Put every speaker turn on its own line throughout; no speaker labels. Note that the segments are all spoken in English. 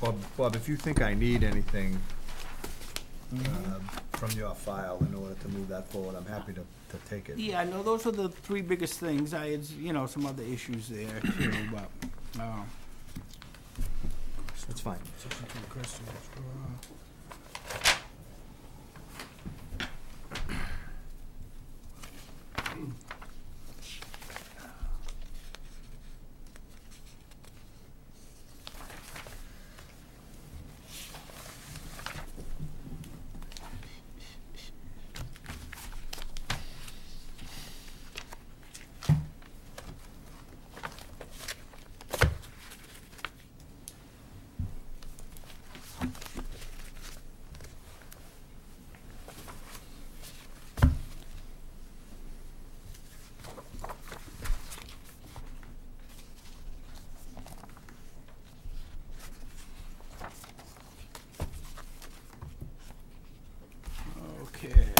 Bob, Bob, if you think I need anything um, from your file in order to move that forward, I'm happy to, to take it.
Yeah, no, those are the three biggest things. I had, you know, some other issues there too, but, uh,
That's fine.
okay.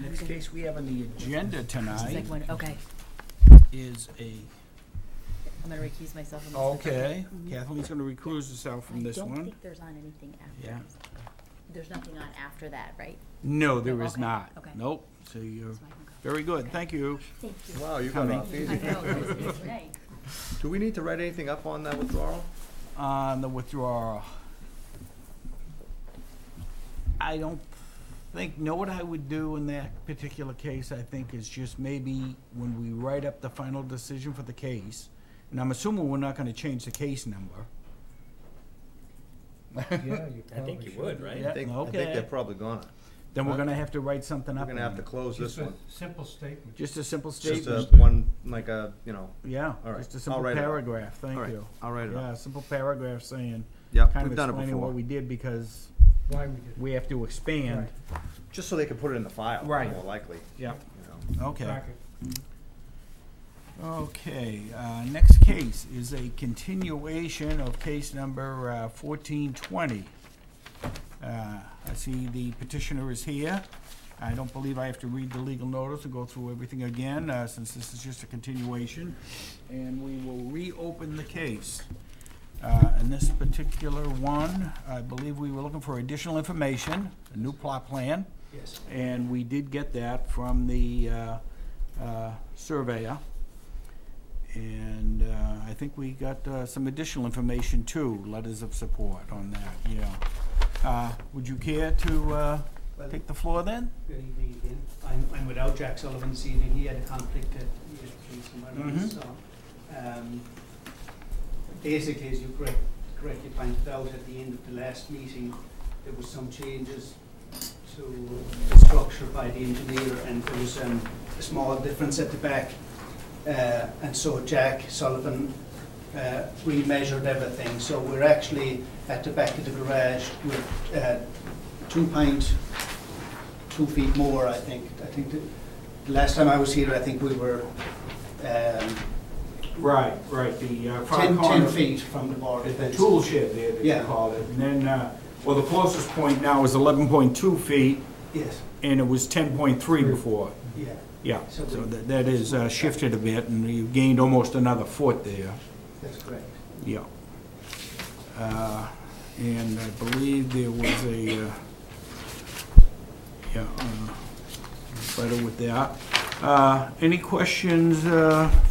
Next case we have on the agenda
Just
tonight
like one- okay,
is a,
I'm gonna recuse myself from this. one.
Oh, okay, Mm-hmm. Kathleen's gonna recuse herself from this
I don't
one.
think there's on anything after.
Yeah.
this. There's nothing on after that, right?
No, there
No,
is
okay,
not.
okay.
Nope, so you're
So I can go.
Very good, thank you.
Thank you.
Wow, you got
Coming.
off
I
easy.
know, it was right.
Do we need to write anything up on that withdrawal?
On the withdrawal, I don't think, know what I would do in that particular case, I think, is just maybe when we write up the final decision for the case, and I'm assuming we're not gonna change the case number.
I think you would, right?
I think, I think
Okay.
they're probably gonna.
Then we're gonna have to write something
We're
up.
gonna have to close this
Just a
one.
simple statement.
Just a simple
Just a,
statement,
one, like a, you know,
yeah,
All right,
just a
I'll
simple
write it up.
paragraph, thank
all right,
you.
I'll write it
Yeah,
up.
a simple paragraph saying,
Yeah,
kind of
we've done it
explaining what
before.
we did because
Why we did
we have to expand.
Just so they can put it in the file,
Right.
more likely,
Yeah.
you know.
it.
Okay.
Back it.
Okay, uh, next case is a continuation of case number uh, 1420. Uh, I see the petitioner is here. I don't believe I have to read the legal notice and go through everything again, uh, since this is just a continuation. And we will reopen the case. Uh, In this particular one, I believe we were looking for additional information, a new plot plan.
Yes.
And we did get that from the uh, uh, surveyor. And uh, I think we got uh, some additional information too, letters of support on that, yeah. Uh, Would you care to uh, take the floor then?
Good evening again. I'm, I'm without Jack Sullivan this evening. He had a conflict at he had to do some other
Mhm.
so. um, Basically, as you correct, correctly pointed out, at the end of the last meeting, there was some changes to the structure by the engineer and there was um, a small difference at the back. Uh, And so Jack Sullivan uh, remeasured everything. So we're actually at the back of the garage with uh, two point two feet more, I think. I think the, the last time I was here, I think we were um,
Right, right, the uh,
ten, ten feet from the border.
The tool shed there that you
Yeah.
called it. And then, uh, well, the closest point now is 11.2 feet
Yes,
and it was 10.3 before.
yeah.
Yeah, so
So we-
that that is uh, shifted a bit, and you gained almost another foot there,
That's correct.
yeah. Uh, And I believe there was a, uh, yeah, uh, better with that. Uh, Any questions uh,